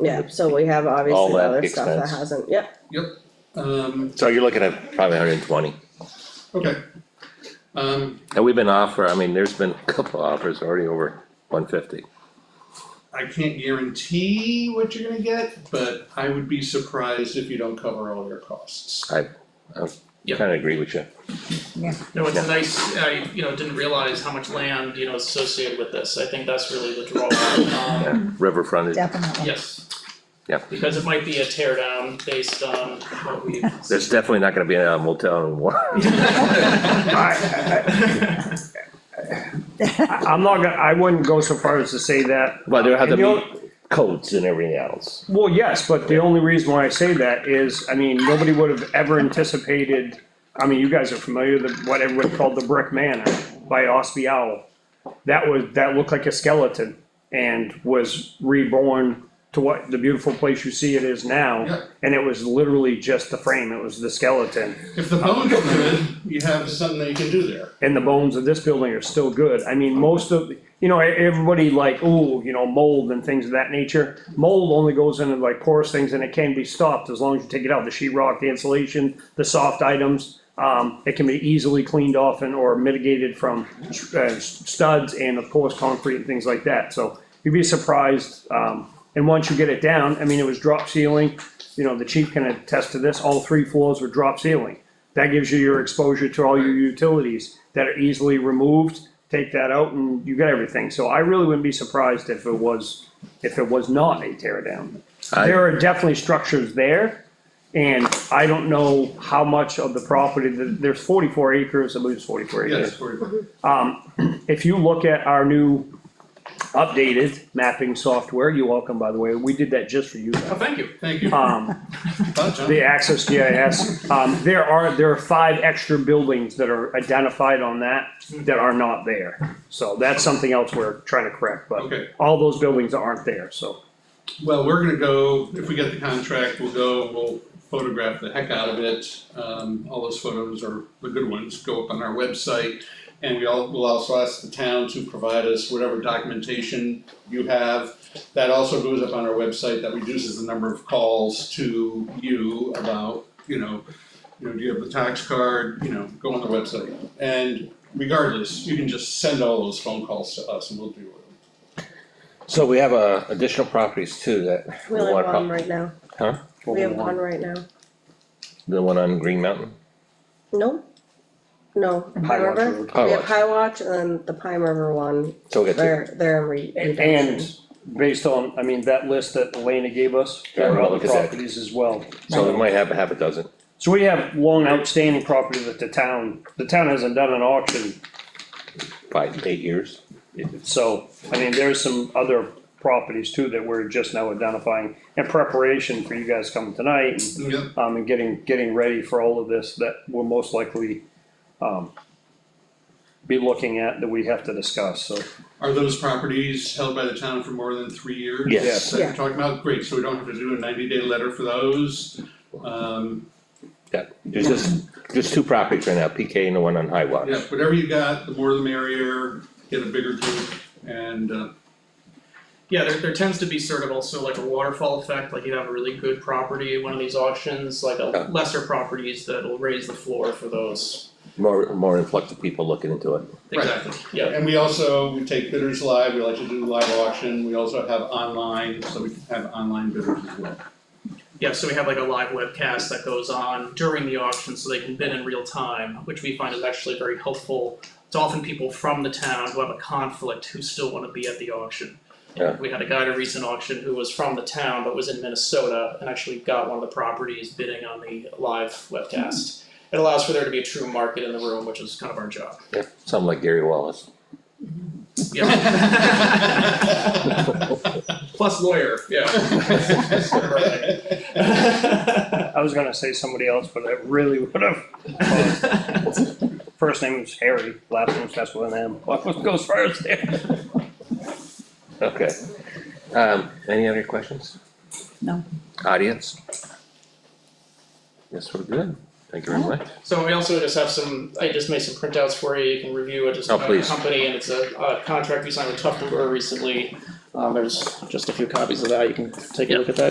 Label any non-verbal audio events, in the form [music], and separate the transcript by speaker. Speaker 1: Yeah, so we have obviously
Speaker 2: that
Speaker 1: other stuff that
Speaker 2: expense.
Speaker 1: hasn't, yep,
Speaker 3: Yep, um,
Speaker 2: So you're looking at probably hundred and twenty,
Speaker 3: okay. Um,
Speaker 2: and we've been offer, I mean, there's been a couple offers already over one fifty.
Speaker 3: I can't guarantee what you're gonna get, but I would be surprised if you don't cover all your costs.
Speaker 2: I Kinda agree with you,
Speaker 4: No, it's
Speaker 2: Yeah.
Speaker 4: nice, I, you know, didn't realize how much land, you know, is associated with this, I think that's really the draw, um,
Speaker 2: yeah,
Speaker 1: Mm-hmm.
Speaker 2: river frontage,
Speaker 5: Definitely.
Speaker 4: yes.
Speaker 2: Yeah.
Speaker 4: Because it might be a tear down based on what we.
Speaker 2: there's definitely not gonna be a motel in Warren.
Speaker 6: I'm not gonna, I wouldn't go so far as to say that.
Speaker 2: [laughs] But there have to
Speaker 6: And the
Speaker 2: be codes and everything else,
Speaker 6: Well, yes, but the only reason why I say that is, I mean, nobody would have ever anticipated, I mean, you guys are familiar with what everyone called the Brick Manor by Osby Owl. That was, that looked like a skeleton and was reborn to what, the beautiful place you see it is
Speaker 3: Yeah.
Speaker 6: now. And it was literally just the frame, it was the skeleton.
Speaker 3: If the bones are good, you have something that you can do there.
Speaker 6: and the bones of this building are still good. I mean, most of, you know, e-, everybody like, ooh, you know, mold and things of that nature. Mold only goes into like porous things and it can be stopped as long as you take it out, the sheetrock, the insulation, the soft items. Um, it can be easily cleaned off and or mitigated from uh, studs and of course concrete and things like that. So you'd be surprised, um, and once you get it down, I mean, it was drop ceiling. You know, the chief can attest to this, all three floors were drop ceiling. That gives you your exposure to all your utilities that are easily removed, take that out and you got everything. So I really wouldn't be surprised if it was, if it was not a tear down.
Speaker 2: I-
Speaker 6: There are definitely structures there. And I don't know how much of the property, th- there's forty-four acres, I believe it's forty-four
Speaker 3: Yes,
Speaker 6: acres. Um,
Speaker 3: for
Speaker 6: [clears throat] If you look at our new updated mapping software, you're welcome, by the way, we did that just for you.
Speaker 4: Oh, thank you.
Speaker 3: Thank you.
Speaker 6: Um,
Speaker 3: Thought, John.
Speaker 6: the Access GIS, um, there are, there are five extra buildings that are identified on that that are not there. So that's something else we're trying to correct, but
Speaker 3: Okay,
Speaker 6: all those buildings aren't there, so.
Speaker 3: well, we're gonna go, if we get the contract, we'll go, we'll photograph the heck out of it. Um, all those photos are the good ones, go up on our website. And we all, will also ask the town to provide us whatever documentation you have. That also goes up on our website, that reduces the number of calls to you about, you know, you know, do you have the tax card, you know, go on the website. And regardless, you can just send all those phone calls to us and we'll deal with them.
Speaker 2: So we have, uh, additional properties too that.
Speaker 1: we only
Speaker 2: want-
Speaker 1: have one right now, we have one right now,
Speaker 2: The one on Green Mountain,
Speaker 1: no? No, Pine
Speaker 6: High Lodge
Speaker 1: River,
Speaker 6: Road.
Speaker 1: we
Speaker 2: Pie
Speaker 1: have
Speaker 2: Lodge,
Speaker 1: Pie Watch and then the Pine River one,
Speaker 2: so we got two,
Speaker 1: they're, they're in re-
Speaker 6: And,
Speaker 1: reduction.
Speaker 6: based on, I mean, that list that Elena gave us, there are
Speaker 2: Yeah,
Speaker 6: other
Speaker 2: look at that.
Speaker 6: properties as well.
Speaker 2: so we might have a half a dozen.
Speaker 6: So we have long outstanding property that the town, the town hasn't done an auction,
Speaker 2: five, eight years.
Speaker 6: so, I mean, there's some other properties too that we're just now identifying in preparation for you guys coming tonight and
Speaker 3: Yep.
Speaker 6: um, and getting, getting ready for all of this that we'll most likely, um, be looking at that we have to discuss, so.
Speaker 3: Are those properties held by the town for more than three years?
Speaker 2: Yes.
Speaker 6: Yes.
Speaker 3: That you're talking about, great, so we don't have to do a ninety day letter for those, um,
Speaker 2: There's just, there's two properties right now, PK and the one on High Watch.
Speaker 3: yeah, whatever you got, the more the merrier, get a bigger group, and, uh,
Speaker 4: Yeah, there, there tends to be sort of also like a waterfall effect, like you have a really good property, at one of these auctions, like
Speaker 2: Yeah.
Speaker 4: a lesser properties that'll raise the floor for those.
Speaker 2: More, more influx of people looking into it.
Speaker 3: Right.
Speaker 4: Exactly, yeah,
Speaker 3: and we also, we take bidders live, we like to do live auction, we also have online, so we can have online bidders as well.
Speaker 4: yeah, so we have like a live webcast that goes on during the auction, so they can bid in real time, which we find is actually very helpful. It's often people from the town who have a conflict who still wanna be at the auction.
Speaker 2: Yeah.
Speaker 4: We had a guy at a recent auction who was from the town but was in Minnesota and actually got one of the properties bidding on the live webcast. It allows for there to be a true market in the room, which is kind of our job.
Speaker 2: Yeah, something like Gary Wallace.
Speaker 3: [laughs]
Speaker 4: Plus lawyer, yeah. Sort of right. [laughs]
Speaker 6: I was gonna say somebody else, but I really [laughs] would have. First name was Harry, last name starts with an M. What goes first there?
Speaker 2: Okay. Um, any other questions?
Speaker 5: No.
Speaker 2: Audience? Yes, we're good. Thank you very much.
Speaker 4: So we also just have some, I just made some printouts for you, you can review it, just
Speaker 2: Oh,
Speaker 4: about the
Speaker 2: please.
Speaker 4: company, and it's a, a contract we signed with Tufton Brewer recently. Um, there's just a few copies of that, you can take a look at that.